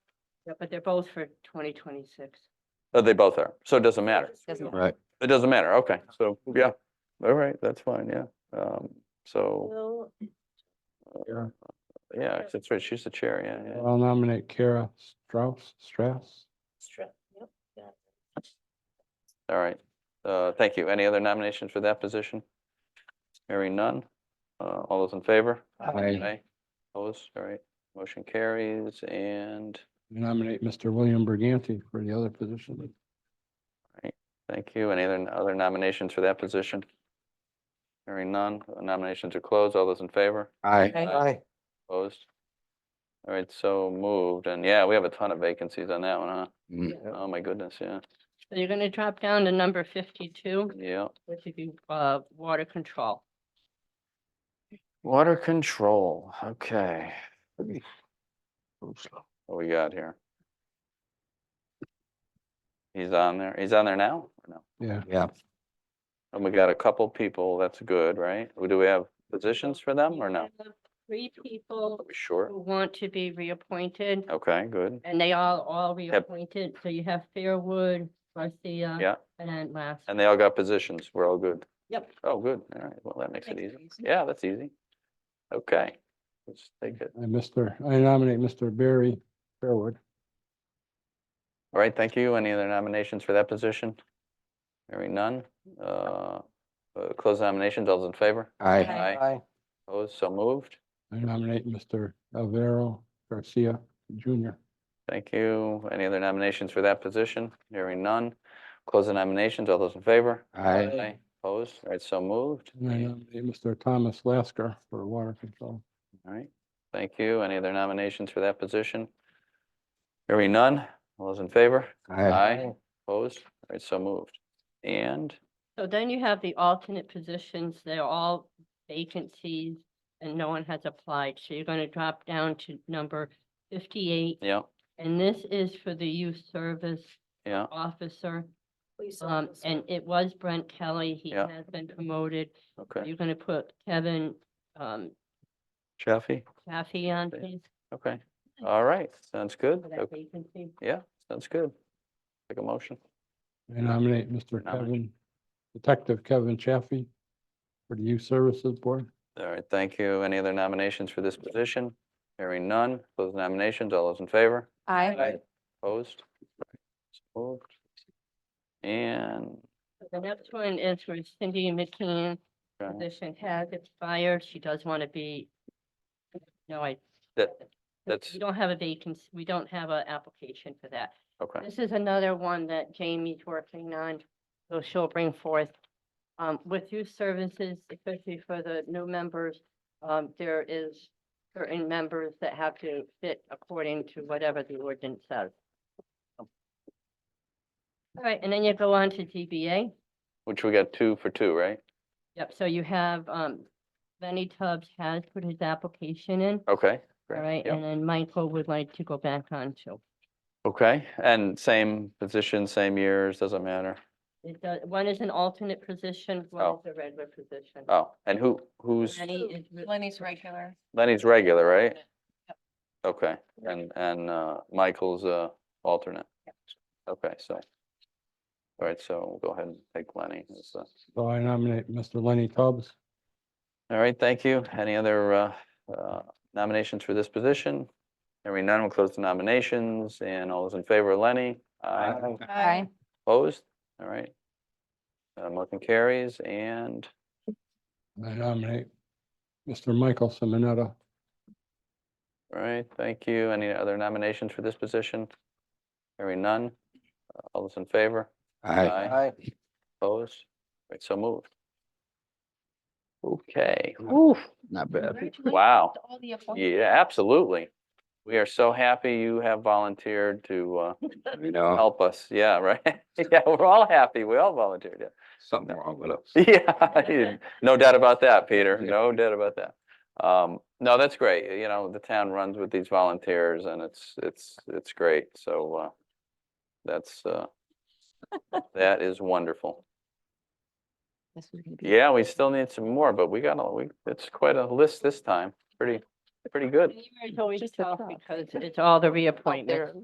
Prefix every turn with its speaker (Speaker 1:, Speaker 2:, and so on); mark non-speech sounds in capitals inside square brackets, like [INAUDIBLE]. Speaker 1: but they're both for twenty twenty-six.
Speaker 2: Oh, they both are. So it doesn't matter.
Speaker 1: Doesn't
Speaker 3: Right.
Speaker 2: It doesn't matter. Okay. So, yeah. All right. That's fine. Yeah. Um, so,
Speaker 1: Will
Speaker 2: yeah, that's right. She's the chair. Yeah. yeah.
Speaker 3: I'll nominate Kara Strauss, Strauss.
Speaker 1: Strip, yep, got it.
Speaker 2: All right. Uh, thank you. Any other nominations for that position? Hearing none. Uh, all those in favor?
Speaker 3: Aye.
Speaker 2: Opposed? All right. Motion carries and
Speaker 3: Nominate Mr. William Berganti for the other position.
Speaker 2: thank you. Any other, other nominations for that position? Hearing none. Nominations are closed. All those in favor?
Speaker 3: Aye.
Speaker 1: Okay.
Speaker 2: Opposed? All right, so moved, and yeah, we have a ton of vacancies on that one, huh?
Speaker 1: Yep.
Speaker 2: Oh, my goodness, yeah,
Speaker 1: So you're gonna drop down to number fifty-two,
Speaker 2: yeah.
Speaker 1: which would be, uh, water control.
Speaker 2: Water control, okay. What we got here? He's on there, he's on there now? or No.
Speaker 3: Yeah.
Speaker 4: Yeah,
Speaker 2: And we got a couple people, that's good, right? Well, Do we have positions for them or
Speaker 1: We
Speaker 2: no?
Speaker 1: have Three
Speaker 2: Are
Speaker 1: people
Speaker 2: we short?
Speaker 1: who want to be reappointed,
Speaker 2: Okay, good,
Speaker 1: and they all, all reappointed, so you have Fairwood, Garcia.
Speaker 2: yeah,
Speaker 1: And then last.
Speaker 2: and they all got positions, we're all good.
Speaker 1: Yep.
Speaker 2: Oh, good, all right, well, that makes it
Speaker 1: Makes it
Speaker 2: easy.
Speaker 1: easy.
Speaker 2: Yeah, that's easy. Okay, let's take it.
Speaker 3: And Mr., I nominate Mr. Barry Fairwood.
Speaker 2: All right, thank you. Any other nominations for that position? Hearing none. Uh, uh, Close nominations. All those in favor?
Speaker 4: aye,
Speaker 1: Aye.
Speaker 2: Opposed? So moved.
Speaker 3: I nominate Mr. Alvaro Garcia Junior.
Speaker 2: Thank you. Any other nominations for that position? Hearing none. Close the nominations. All those in favor?
Speaker 4: aye,
Speaker 2: Opposed? All right, so moved.
Speaker 3: And I nominate Mr. Thomas Lasker for water control.
Speaker 2: All right, thank you. Any other nominations for that position? Hearing none. All those in favor?
Speaker 4: aye,
Speaker 2: Opposed? All right, so moved. And,
Speaker 1: So then you have the alternate positions, they're all vacancies and no one has applied, so you're gonna drop down to number fifty-eight.
Speaker 2: yeah,
Speaker 1: And this is for the youth service
Speaker 2: yeah,
Speaker 1: officer, um, and it was Brent Kelly, he
Speaker 2: Yeah.
Speaker 1: has been promoted.
Speaker 2: okay.
Speaker 1: You're gonna put Kevin, um,
Speaker 2: Chaffee?
Speaker 1: Chaffee on,
Speaker 2: Okay.
Speaker 1: please,
Speaker 2: Okay,
Speaker 1: Mm-hmm.
Speaker 2: all right, sounds good.
Speaker 1: for
Speaker 2: Okay.
Speaker 1: that vacancy.
Speaker 2: Yeah, sounds good. Take a motion.
Speaker 3: I nominate Mr. Kevin,
Speaker 2: Nomination.
Speaker 3: Detective Kevin Chaffee for the Youth Services Board.
Speaker 2: All right, thank you. Any other nominations for this position? Hearing none. Close the nominations. All those in favor?
Speaker 4: Aye.
Speaker 2: Opposed? So Moved. And,
Speaker 1: So The next one is for Cindy McKean,
Speaker 2: okay,
Speaker 1: position has expired, she does wanna be. No, I
Speaker 2: that,
Speaker 1: But
Speaker 2: That's-
Speaker 1: We don't have a vacancy, we don't have an application for that.
Speaker 2: okay,
Speaker 1: This is another one that Jamie's working on, so she'll bring forth. Um, with youth services, especially for the new members, um, there is certain members that have to fit according to whatever the ordinance says. All right, and then you go on to DBA.
Speaker 2: which we got two for two, right?
Speaker 1: Yep, so you have, um, Lenny Tubbs has put his application in,
Speaker 2: Okay.
Speaker 1: all
Speaker 2: great,
Speaker 1: right,
Speaker 2: yep.
Speaker 1: and then Michael would like to go back on too.
Speaker 2: Okay, and same position, same years, doesn't matter.
Speaker 1: It does, one is an alternate position,
Speaker 2: Oh.
Speaker 1: one is a regular position.
Speaker 2: Oh, and who, who's,
Speaker 1: Lenny is, re-
Speaker 5: Lenny's regular.
Speaker 2: Lenny's regular, right? Okay, and, and uh, Michael's uh, alternate. Okay, so. All right, so we'll go ahead and take Lenny. as the-
Speaker 3: So I nominate Mr. Lenny Tubbs.
Speaker 2: All right, thank you. Any other uh, uh, nominations for this position? Hearing none, we'll close the nominations and all those in favor, Lenny? Aye.
Speaker 5: Aye.
Speaker 2: Opposed? All right. Uh, Motion carries and,
Speaker 3: I nominate Mr. Michael Simonetta.
Speaker 2: all right, thank you. Any other nominations for this position? Hearing none, Uh, all those in favor?
Speaker 4: aye,
Speaker 2: Opposed? All Right, so moved. Okay,
Speaker 4: not bad.
Speaker 2: wow.
Speaker 5: All the appointments.
Speaker 2: Yeah, absolutely. We are so happy you have volunteered to uh,
Speaker 4: You know,
Speaker 2: help us. Yeah, right. [LAUGHS] Yeah, we're all happy. We all volunteered.
Speaker 4: something wrong with us.
Speaker 2: Yeah. [LAUGHS] Yeah, no doubt about that, Peter. No doubt about that. Um, No, that's great. You know, the town runs with these volunteers and it's, it's, it's great. So uh, that's, uh, that is wonderful.
Speaker 5: This was gonna be-
Speaker 2: Yeah, we still need some more, but we got, a we, it's quite a list this time. Pretty, pretty good.
Speaker 1: It's always
Speaker 5: Just a
Speaker 1: tough
Speaker 5: thought.
Speaker 1: because it's all the
Speaker 5: Out there.
Speaker 1: reappointments.